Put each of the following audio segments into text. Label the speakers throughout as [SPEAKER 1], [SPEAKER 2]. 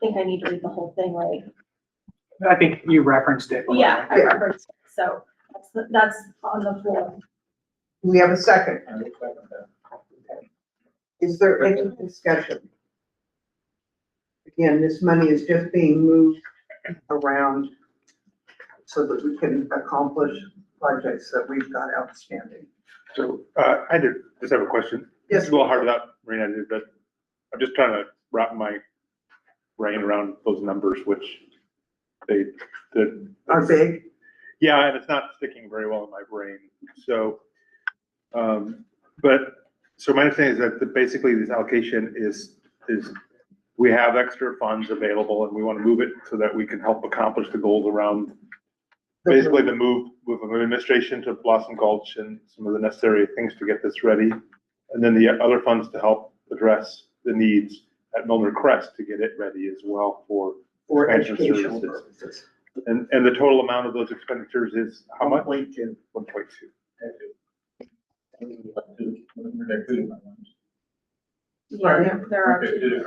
[SPEAKER 1] think I need to read the whole thing, right?
[SPEAKER 2] I think you referenced it.
[SPEAKER 1] Yeah, I remember, so that's, the- that's on the form.
[SPEAKER 3] We have a second. Is there any discussion? Again, this money is just being moved around so that we can accomplish projects that we've got outstanding.
[SPEAKER 4] So, uh, I did, just have a question. It's
[SPEAKER 3] Yes,
[SPEAKER 4] a little hard without Marina, to do, but I'm just trying to wrap my brain around those numbers, which they, the.
[SPEAKER 3] our big,
[SPEAKER 4] Yeah, and it's not sticking very well in my brain, so, um, but, so my understanding is that the- basically this allocation is, is we have extra funds available and we want to move it so that we can help accomplish the goals around basically the move with administration to Blossom Gulch and some of the necessary things to get this ready. And then the other funds to help address the needs at Milner Crest to get it ready as well for,
[SPEAKER 3] for
[SPEAKER 4] expansion
[SPEAKER 3] educational
[SPEAKER 4] services.
[SPEAKER 3] purposes.
[SPEAKER 4] and, and the total amount of those expenditures is how much? One point two.
[SPEAKER 1] Yeah,
[SPEAKER 3] Right.
[SPEAKER 1] there are two.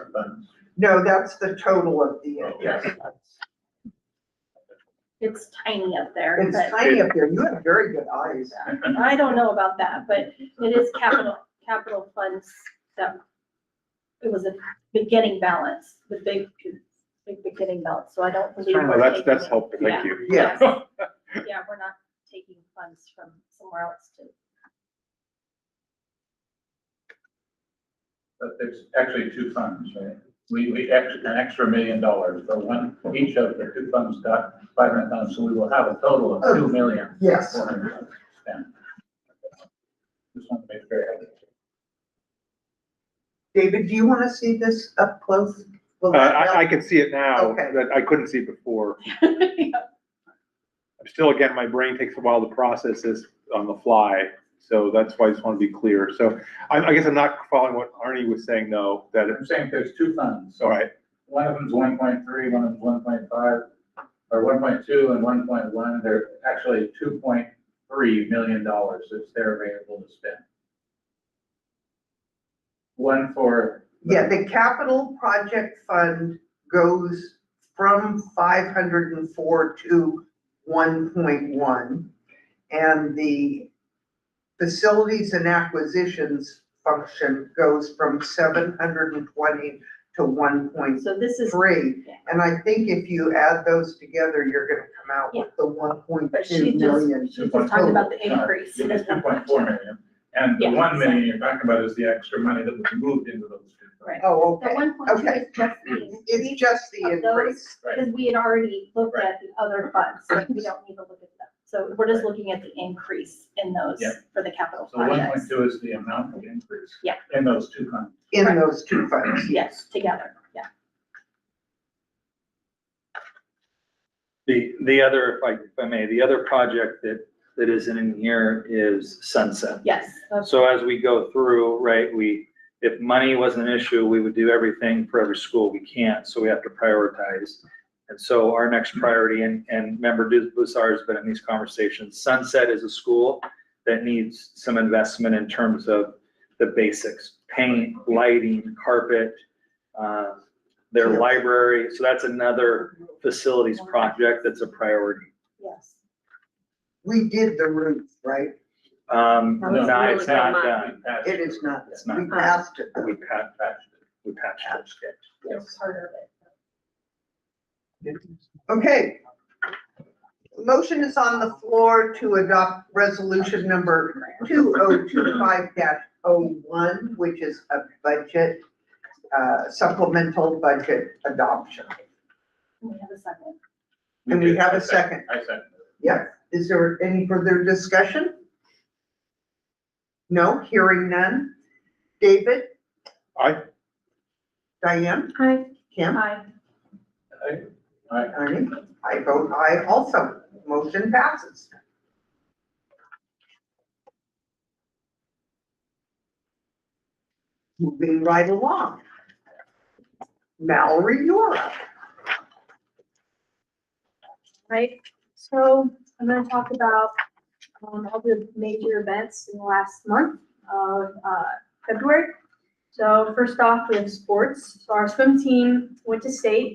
[SPEAKER 3] No, that's the total of the, uh, yes.
[SPEAKER 1] It's tiny up there,
[SPEAKER 3] It's
[SPEAKER 1] but
[SPEAKER 3] tiny up there. You have very good eyes.
[SPEAKER 1] I don't know about that, but it is capital, capital funds that it was a beginning balance, the big, big beginning balance, so I don't believe.
[SPEAKER 4] Well,
[SPEAKER 1] we're
[SPEAKER 4] that's,
[SPEAKER 1] taking
[SPEAKER 4] that's
[SPEAKER 1] it.
[SPEAKER 4] helpful,
[SPEAKER 1] Yeah.
[SPEAKER 4] thank you.
[SPEAKER 3] Yes.
[SPEAKER 1] Yeah, we're not taking funds from somewhere else to.
[SPEAKER 5] But there's actually two funds, right? We, we extra, an extra million dollars, but one, each of the two funds got five hundred thousand, so we will have a total of two million.
[SPEAKER 3] Yes.
[SPEAKER 5] four hundred thousand spent. Just want to make sure.
[SPEAKER 3] David, do you want to see this up close? Will
[SPEAKER 4] Uh,
[SPEAKER 3] that
[SPEAKER 4] I, I
[SPEAKER 3] help?
[SPEAKER 4] can see it now,
[SPEAKER 3] Okay.
[SPEAKER 4] that I couldn't see before. I'm Still, again, my brain takes a while to process this on the fly, so that's why I just want to be clear. So I, I guess I'm not following what Arnie was saying, though, that it's,
[SPEAKER 5] I'm saying there's two funds,
[SPEAKER 4] all
[SPEAKER 5] so
[SPEAKER 4] right,
[SPEAKER 5] one of them's one point three, one of them's one point five, or one point two and one point one, they're actually two point three million dollars that's there available to spend. One for.
[SPEAKER 3] Yeah, the capital project fund goes from five hundred and four to one point one. And the facilities and acquisitions function goes from seven hundred and twenty to one point
[SPEAKER 1] So this is,
[SPEAKER 3] three. And I think if you add those together, you're gonna come out with the one point
[SPEAKER 1] But she just-
[SPEAKER 3] two million.
[SPEAKER 1] she's just talking about the increase.
[SPEAKER 5] It is two point four million, and the
[SPEAKER 1] Yeah.
[SPEAKER 5] one million you're talking about is the extra money that was moved into those two.
[SPEAKER 1] right.
[SPEAKER 3] Oh,
[SPEAKER 1] The
[SPEAKER 3] okay.
[SPEAKER 1] one point two
[SPEAKER 3] okay.
[SPEAKER 1] is just the increase
[SPEAKER 3] It's just the
[SPEAKER 1] of
[SPEAKER 3] increase.
[SPEAKER 1] those,
[SPEAKER 5] Right.
[SPEAKER 1] because we had already looked at the other funds, so we don't need to look at them. So we're just looking at the increase in those
[SPEAKER 5] Yeah.
[SPEAKER 1] for the capital
[SPEAKER 5] So one point
[SPEAKER 1] projects.
[SPEAKER 5] two is the amount of increase.
[SPEAKER 1] Yeah.
[SPEAKER 5] In those two funds.
[SPEAKER 3] in
[SPEAKER 1] Right.
[SPEAKER 3] those two funds.
[SPEAKER 1] Yes, together, yeah.
[SPEAKER 6] The, the other, if I, if I may, the other project that, that isn't in here is Sunset.
[SPEAKER 1] Yes, that's
[SPEAKER 6] So as we go through, right, we, if money wasn't an issue, we would do everything for every school. We can't, so we have to prioritize. And so our next priority, and, and member Bussar has been in these conversations, Sunset is a school that needs some investment in terms of the basics, paint, lighting, carpet, uh, their
[SPEAKER 3] Yeah.
[SPEAKER 6] library. So that's another facilities project that's a priority.
[SPEAKER 1] yes.
[SPEAKER 3] We did the roof, right?
[SPEAKER 6] Um,
[SPEAKER 5] That was
[SPEAKER 6] no,
[SPEAKER 5] really
[SPEAKER 6] it's not done.
[SPEAKER 5] bad.
[SPEAKER 3] It is not,
[SPEAKER 6] It's not.
[SPEAKER 3] we passed it.
[SPEAKER 6] We patched, we patched it.
[SPEAKER 1] That's part of it.
[SPEAKER 3] Okay. Motion is on the floor to adopt resolution number two oh two five dash oh one, which is a budget, uh, supplemental budget adoption.
[SPEAKER 1] Can we have a second?
[SPEAKER 3] And we
[SPEAKER 5] did.
[SPEAKER 3] have a
[SPEAKER 5] I
[SPEAKER 3] second.
[SPEAKER 5] I second.
[SPEAKER 3] Yeah, is there any further discussion? No, hearing none. David,
[SPEAKER 4] I,
[SPEAKER 3] Diane,
[SPEAKER 1] Aye.
[SPEAKER 3] Kim?
[SPEAKER 1] Aye.
[SPEAKER 5] All right,
[SPEAKER 3] Ernie, I vote aye also. Motion passes. Moving right along. Mallory, you're up.
[SPEAKER 7] right? So I'm gonna talk about um, all the major events in the last month of uh, February. So first off, we have sports. So our swim team went to state